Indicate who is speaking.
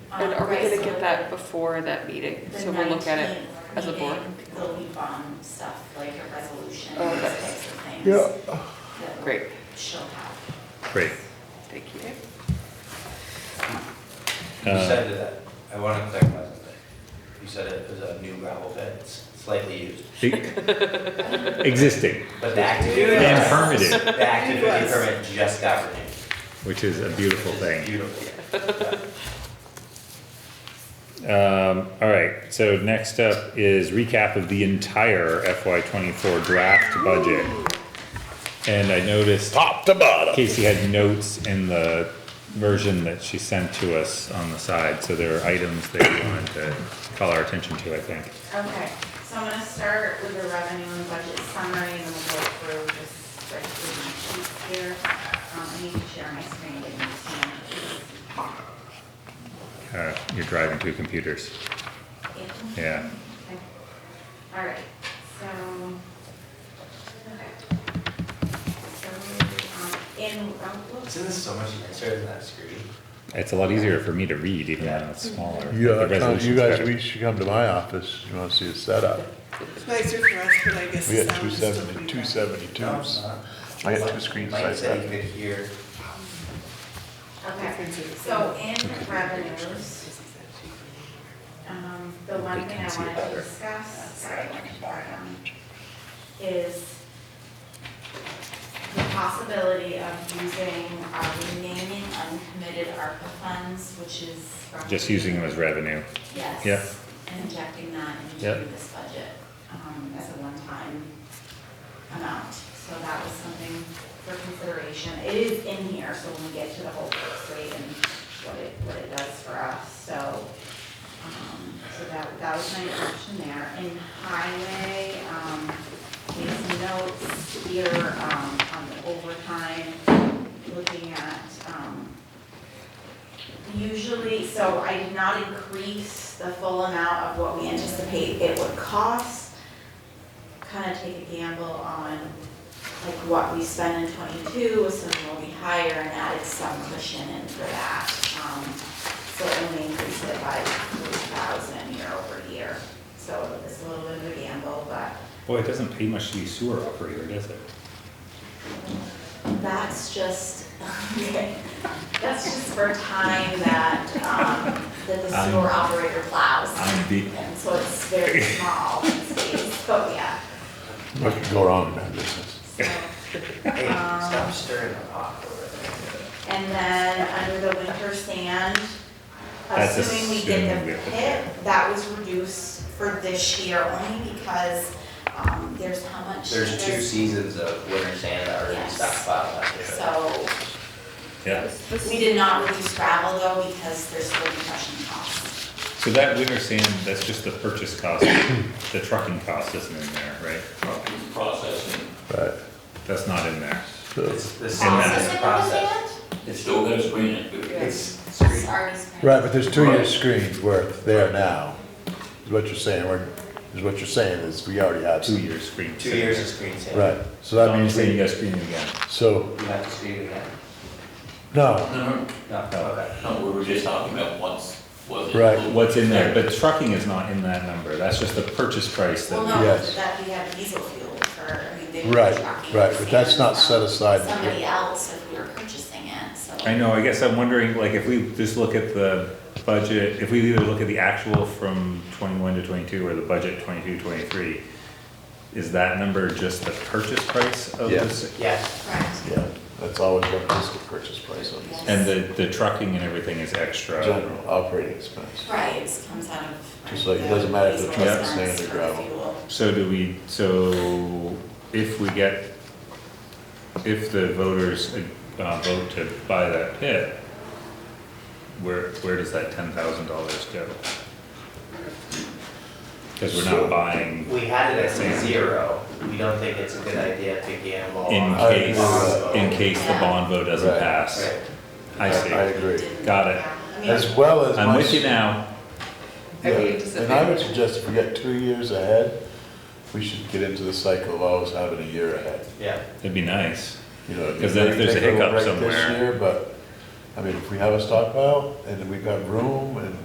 Speaker 1: And are we gonna get that before that meeting?
Speaker 2: The
Speaker 1: So we'll look at it
Speaker 2: 19th
Speaker 1: as a board.
Speaker 2: meeting, There'll be bond um, stuff, like a resolution,
Speaker 1: Oh,
Speaker 2: those
Speaker 1: okay.
Speaker 2: types of things.
Speaker 3: Yeah.
Speaker 2: that
Speaker 1: Great,
Speaker 2: She'll have.
Speaker 4: Great.
Speaker 1: thank you.
Speaker 5: You
Speaker 4: Uh,
Speaker 5: said that, I want to clarify something. You said it was a new gravel pit, it's slightly used,
Speaker 4: e- Existing,
Speaker 5: but the activity.
Speaker 4: And permitted.
Speaker 5: The activity permit just got renewed.
Speaker 4: which is a beautiful
Speaker 5: which is
Speaker 4: thing.
Speaker 5: Beautiful. Yeah.
Speaker 4: Um, all right, so next up is recap of the entire FY twenty-four draft budget. And I noticed
Speaker 3: Top to bottom.
Speaker 4: Casey had notes in the version that she sent to us on the side, so there are items that you wanted to call our attention to, I think.
Speaker 2: Okay, so I'm gonna start with the revenue and budget summary, and then we'll go through just right through my sheets here. Um, I need to share my screen, but you can't.
Speaker 4: Uh, you're driving two computers, yeah.
Speaker 2: Okay. All right, so, okay. So, um, in, um, whoops.
Speaker 5: Isn't this so much nicer than that screen?
Speaker 4: It's a lot easier for me to read even though it's smaller. but the
Speaker 3: Yeah, come- you
Speaker 4: resolution's
Speaker 3: guys,
Speaker 4: better.
Speaker 3: we should come to my office, you wanna see the setup.
Speaker 6: It's nicer for us, but I guess.
Speaker 3: We
Speaker 6: the
Speaker 3: got two
Speaker 6: sound is still
Speaker 3: seventy,
Speaker 6: pretty
Speaker 3: two
Speaker 6: bad.
Speaker 5: No, it's
Speaker 3: seventy-twos.
Speaker 5: not.
Speaker 3: I got two screens
Speaker 5: Mike
Speaker 3: like
Speaker 5: said you
Speaker 3: that.
Speaker 5: could hear,
Speaker 2: Okay, so in revenues, um, the one thing I wanted to discuss, sorry, um, is the possibility of using our remaining uncommitted ARPA funds, which is. roughly-
Speaker 4: Just using them as revenue.
Speaker 2: Yes.
Speaker 4: Yeah.
Speaker 2: And injecting that
Speaker 4: Yeah.
Speaker 2: into this budget, um, as a one-time amount. So that was something for consideration. It is in here, so when we get to the whole tax rate and what it, what it does for us, so, um, so that, that was my option there. In highway, um, these notes here, um, on the overtime, looking at, um, Usually, so I did not increase the full amount of what we anticipate it would cost. Kind of take a gamble on like what we spend in twenty-two, assuming we'll be higher and added some cushion in for that. Um, So it only increased it by three thousand year over year. So it's a little bit of a gamble, but
Speaker 4: Boy, it doesn't pay much to be sewer operator, does it?
Speaker 2: That's just, okay, that's just for time that, um, that the sewer operator plows.
Speaker 4: I'm beat.
Speaker 2: And so it's very small in space, but yeah,
Speaker 3: What could go wrong in that business?
Speaker 2: so.
Speaker 5: hey,
Speaker 2: Um,
Speaker 5: stop stirring the pot over there.
Speaker 2: And then under the winter sand,
Speaker 4: That's
Speaker 2: assuming we get
Speaker 4: assuming we
Speaker 2: the
Speaker 4: have the
Speaker 2: pit, that was reduced for this year only because, um, there's how much?
Speaker 5: There's two seasons of winter sand that already
Speaker 2: Yes.
Speaker 5: stockpiled last year.
Speaker 2: So
Speaker 4: Yeah,
Speaker 2: we did not reduce gravel though because there's still compression costs.
Speaker 4: so that winter sand, that's just the purchase cost, the trucking cost isn't in there, right?
Speaker 7: processing.
Speaker 3: Right,
Speaker 4: That's not in there.
Speaker 3: so,
Speaker 5: It's the same
Speaker 2: Processing
Speaker 5: as
Speaker 2: of
Speaker 5: the
Speaker 2: the
Speaker 5: process.
Speaker 2: sand?
Speaker 7: It still got screen it, but
Speaker 5: It's
Speaker 2: That's
Speaker 5: screen,
Speaker 2: already spent.
Speaker 3: right, but there's two years screened worth there now, is what you're saying, we're, is what you're saying is we already have.
Speaker 4: Two
Speaker 3: some-
Speaker 4: years screen.
Speaker 5: two years of screen sand.
Speaker 3: Right, so
Speaker 4: So
Speaker 3: that
Speaker 4: I'm
Speaker 3: means,
Speaker 4: saying you
Speaker 3: we-
Speaker 4: gotta screen it again.
Speaker 3: so,
Speaker 5: You have to screen it again.
Speaker 3: no,
Speaker 7: No,
Speaker 5: No,
Speaker 3: Oh.
Speaker 5: okay.
Speaker 7: no, we were just talking about once, was it?
Speaker 3: Right.
Speaker 4: What's in there, but trucking is not in that number, that's just the purchase price
Speaker 2: Well,
Speaker 4: that,
Speaker 2: no,
Speaker 3: Yes.
Speaker 2: that we have diesel fuel for, I mean, they were
Speaker 3: Right,
Speaker 2: trucking
Speaker 3: right, but that's not
Speaker 2: sand from
Speaker 3: set aside.
Speaker 2: Somebody else if we were purchasing it, so.
Speaker 4: I know, I guess I'm wondering, like, if we just look at the budget, if we either look at the actual from twenty-one to twenty-two or the budget twenty-two, twenty-three, is that number just the purchase price of
Speaker 3: Yeah.
Speaker 4: this?
Speaker 5: Yes,
Speaker 2: Correct.
Speaker 3: yeah, that's always what is the purchase price on this,
Speaker 4: And the, the trucking and everything is extra?
Speaker 3: general operating expense.
Speaker 2: Right, it comes out of.
Speaker 3: Just like it doesn't matter if the
Speaker 2: diesel
Speaker 3: truck's
Speaker 2: expense
Speaker 3: sand or
Speaker 2: for the
Speaker 3: gravel.
Speaker 2: fuel.
Speaker 4: So do we, so if we get, if the voters uh, vote to buy that pit, where, where does that ten thousand dollars go? Because we're
Speaker 3: So-
Speaker 4: not buying
Speaker 5: we had it at zero. We don't think it's a good idea to gamble
Speaker 4: in
Speaker 5: on.
Speaker 3: uh, I agree
Speaker 4: case,
Speaker 3: with that.
Speaker 4: in case the bond vote doesn't
Speaker 3: Right.
Speaker 4: pass.
Speaker 5: Right.
Speaker 4: I
Speaker 3: I
Speaker 4: see.
Speaker 3: agree,
Speaker 4: Got it.
Speaker 2: Yeah, I mean,
Speaker 3: as well as.
Speaker 4: I'm
Speaker 3: my-
Speaker 4: with you now.
Speaker 3: Yeah,
Speaker 1: I mean, it's a
Speaker 3: And I would
Speaker 1: big-
Speaker 3: suggest if we get two years ahead, we should get into the cycle of always having a year ahead.
Speaker 5: Yeah.
Speaker 4: That'd be nice.
Speaker 3: You know,
Speaker 4: 'Cause then if there's a
Speaker 3: take
Speaker 4: hiccup
Speaker 3: little break
Speaker 4: somewhere-
Speaker 3: This year, but, I mean, if we have a stockpile and we've got room and